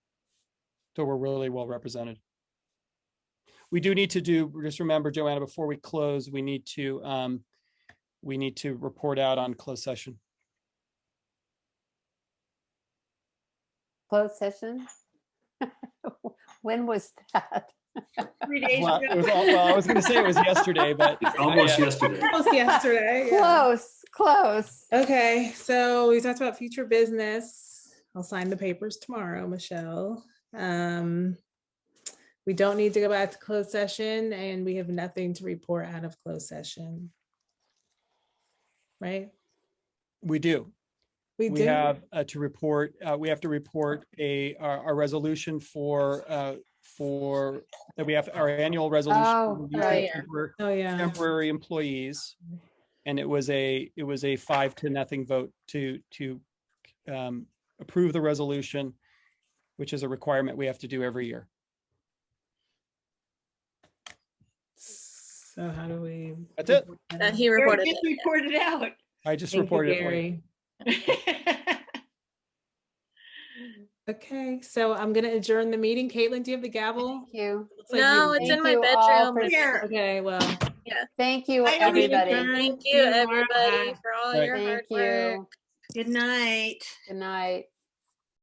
So we're really well represented. We do need to do, just remember, Joanna, before we close, we need to, um, we need to report out on closed session. Closed session? When was that? Three days Well, it was ago. all- well, I was gonna say it was yesterday, but It's almost yesterday. Almost yesterday. yeah. Close, close. Okay, so we talked about future business. I'll sign the papers tomorrow, Michelle. Um, we don't need to go back to closed session and we have nothing to report out of closed session. Right? we do. We We do. have uh, to report, uh, we have to report a, our, our resolution for, uh, for, that we have our annual resolution. Oh, for use of right. temporary- Oh, yeah. Temporary employees. And it was a, it was a five to nothing vote to, to um, approve the resolution, which is a requirement we have to do every year. So how do we? That's it. report that Uh, out? he reported it. Just reported out. I just Thank you, reported. it. Lori. Gary. Okay, so I'm gonna adjourn the meeting. Caitlin, do you have the gavel? Thank you. Looks like you- No, it's in my Thank you all bedroom. for- Here, Okay, well. Thank you, I don't need everybody. to- Thank See you, tomorrow. everybody, for all Right. your hard Thank work. you. good night. Good night.